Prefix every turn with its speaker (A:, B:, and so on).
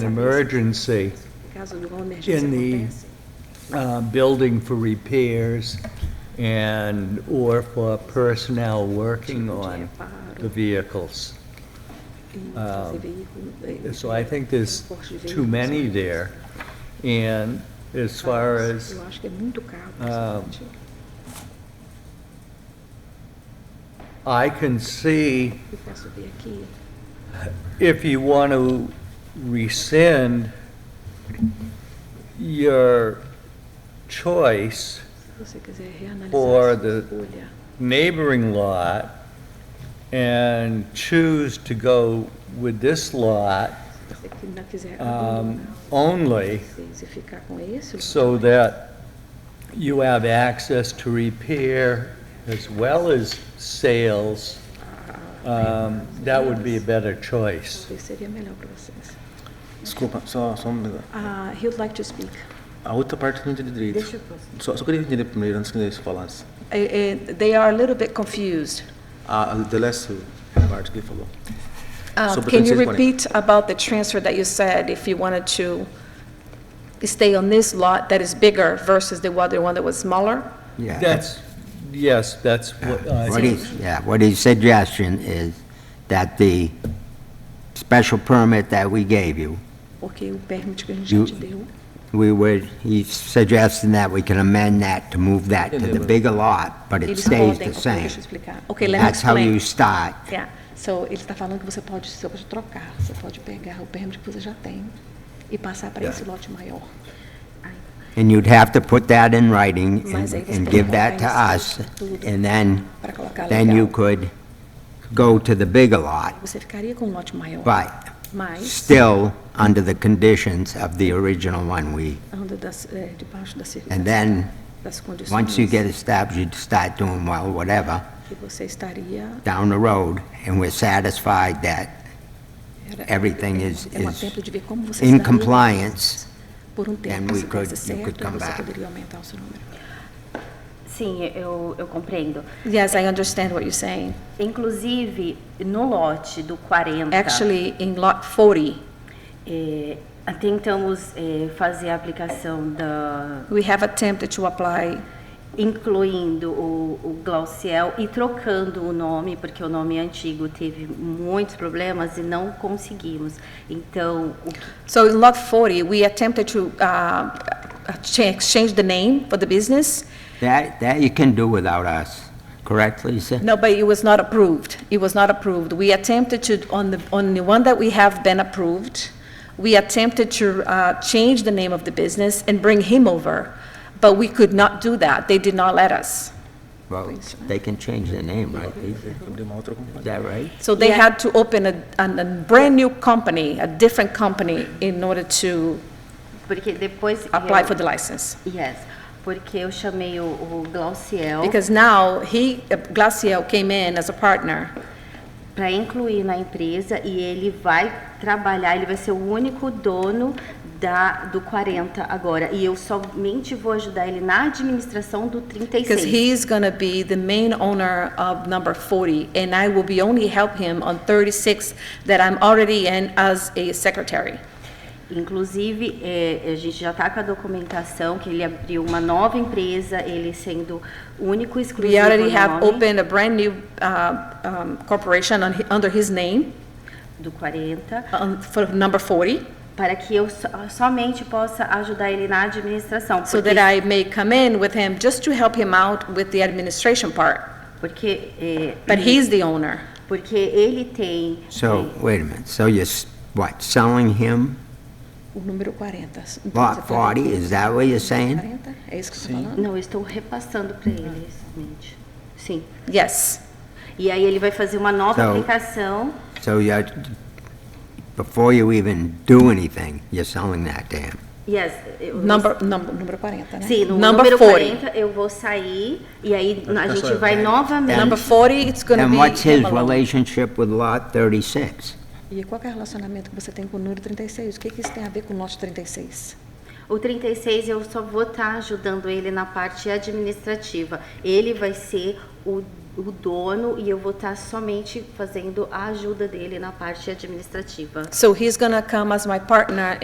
A: emergency
B: Por causa de uma
A: In the-
B: emergência
A: uh, building for repairs and, or for personnel working on the vehicles. um, So I think there's too many there. And as far as
B: Eu acho que é muito caro.
A: um,
B: principalmente.
A: I can see,
B: Eu posso ver aqui.
A: if you want to rescind your choice,
B: Se você quiser reanalisar
A: For
B: a
A: the-
B: sua escolha,
A: neighboring lot and choose to go with this lot
B: se você que não quiser
A: um,
B: abandonar
A: only
B: vocês e ficar com esse,
A: so that you have access to repair as well as sales, um, that would be a better choice.
B: talvez seria melhor para vocês.
C: Desculpa, só, só um minuto.
B: Ah, he would like to speak.
C: A outra parte eu não entendi direito.
D: Deixa eu passar.
C: Só, só queria entender primeiro, antes que eles falassem.
D: Eh, eh, They are a little bit confused.
C: A, a the last parte que ele falou.
D: Uh,
C: Sobre
D: Can you
C: 2640.
D: repeat about the transfer that you said, if you wanted to stay on this lot that is bigger versus the other one that was smaller?
E: Yeah.
A: That's, yes, that's what
E: What
A: I,
E: he's, yeah, what his suggestion is that the special permit that we gave you,
B: Porque o permit que a gente já te
E: You-
B: deu,
E: we would, he's suggesting that we can amend that to move that to the
C: Entendeu?
E: bigger lot, but it
B: eles
E: stays
B: podem,
E: the
B: ok,
E: same.
B: deixa eu explicar. Ok, let me
E: That's how you
B: explain.
E: start.
B: Yeah. So, ele está falando que você pode, você pode trocar, você pode pegar o permit que você já tem e passar para esse lote maior.
E: And you'd have to put that in writing
B: Mas
E: and
B: aí você
E: and
B: tem
E: give
B: que
E: that to
B: colocar em
E: us,
B: tudo.
E: and then,
B: Para colocar
E: then you
B: legal.
E: could go to the bigger lot,
B: Você ficaria com um lote maior,
E: but
B: mas
E: still under the conditions of the original one we,
B: anda das, eh, debaixo das, circun-
E: and then,
B: das condições
E: once you get established, you'd start doing well, whatever,
B: que você estaria...
E: down the road, and we're satisfied that
B: era-
E: everything is-
B: é um
E: is
B: atento de ver como você
E: in
B: estaria
E: compliance,
B: Por um tempo,
E: we
B: se
E: could-
B: desse
E: you could
B: certo,
E: come
B: você
E: back.
B: poderia aumentar o seu número.
F: Sim, eu, eu compreendo.
B: Yes, I understand what you're saying.
F: Inclusive, no lote do 40,
D: Actually, in Lot 40,
F: eh, tentamos eh, fazer a aplicação da.
D: we have attempted to apply,
F: incluindo o, o Glauciel e trocando o nome, porque o nome antigo teve muitos problemas e não conseguimos. Então, o que
D: so in Lot 40, we attempted to uh, cha- exchange the name for the business.
E: that, that you can do without us, correct, Lisa?
D: No, but it was not approved. It was not approved. We attempted to, on the, on the one that we have been approved, we attempted to uh, change the name of the business and bring him over, but we could not do that. They did not let us.
E: Well, they can change their name, right, Lisa?
C: Abrir uma outra
E: Is
C: companhia.
E: that right?
D: So they had to open a, an- a brand-new company, a different company, in order to
F: porque depois.
D: apply
F: eu-
D: for the license.
F: Yes, porque eu chamei o, o Glauciel
D: Because now, he, Glacial came in as a partner.
F: para incluir na empresa e ele vai trabalhar, ele vai ser o único dono da, do 40 agora. E eu somente vou ajudar ele na administração do
D: Because
F: 36.
D: he's going to be the main owner of number 40, and I will be only help him on 36 that I'm already in as a secretary.
F: Inclusive, eh, a gente já está com a documentação que ele abriu uma nova empresa, ele sendo o único exclusivo
D: We already
F: no
D: have
F: nome
D: opened a brand-new uh, um, corporation on hi- under his name
F: do 40,
D: um, for number 40,
F: para que eu so- somente possa ajudar ele na administração.
D: so
F: porque
D: that I may come in with him just to help him out with the administration part.
F: porque, eh,
D: But he's the owner.
F: porque ele tem
E: So, wait a minute, so you're, s- what, selling him
B: O número 40. Então, você
E: lot
B: fala
E: 40, is that what you're saying?
B: 40? É isso que você está falando?
F: Não, eu estou repassando para ele,
D: Hum.
F: somente. Sim.
D: Yes.
F: E aí ele vai fazer uma nova
E: Então-
F: aplicação.
E: So you're, before you even do anything, you're selling that to him.
F: Yes. eu-
D: Number,
B: O
D: number,
B: número 40, né?
F: Sim, no
D: Number
F: número
D: 40.
F: 40 eu vou sair e aí a
C: ficar é só
F: gente
C: eu. né?
F: vai novamente.
D: number 40, it's going to be.
E: And what's his
D: him alone.
E: relationship with lot 36?
B: E qual que é o relacionamento que você tem com o número 36? O que, que isso tem a ver com o lote 36?
F: O 36 tá eu só vou estar ajudando ele na parte administrativa. Ele vai ser o o dono e eu vou tá estar somente fazendo a ajuda dele na parte administrativa.
D: So he's gonna come as my partner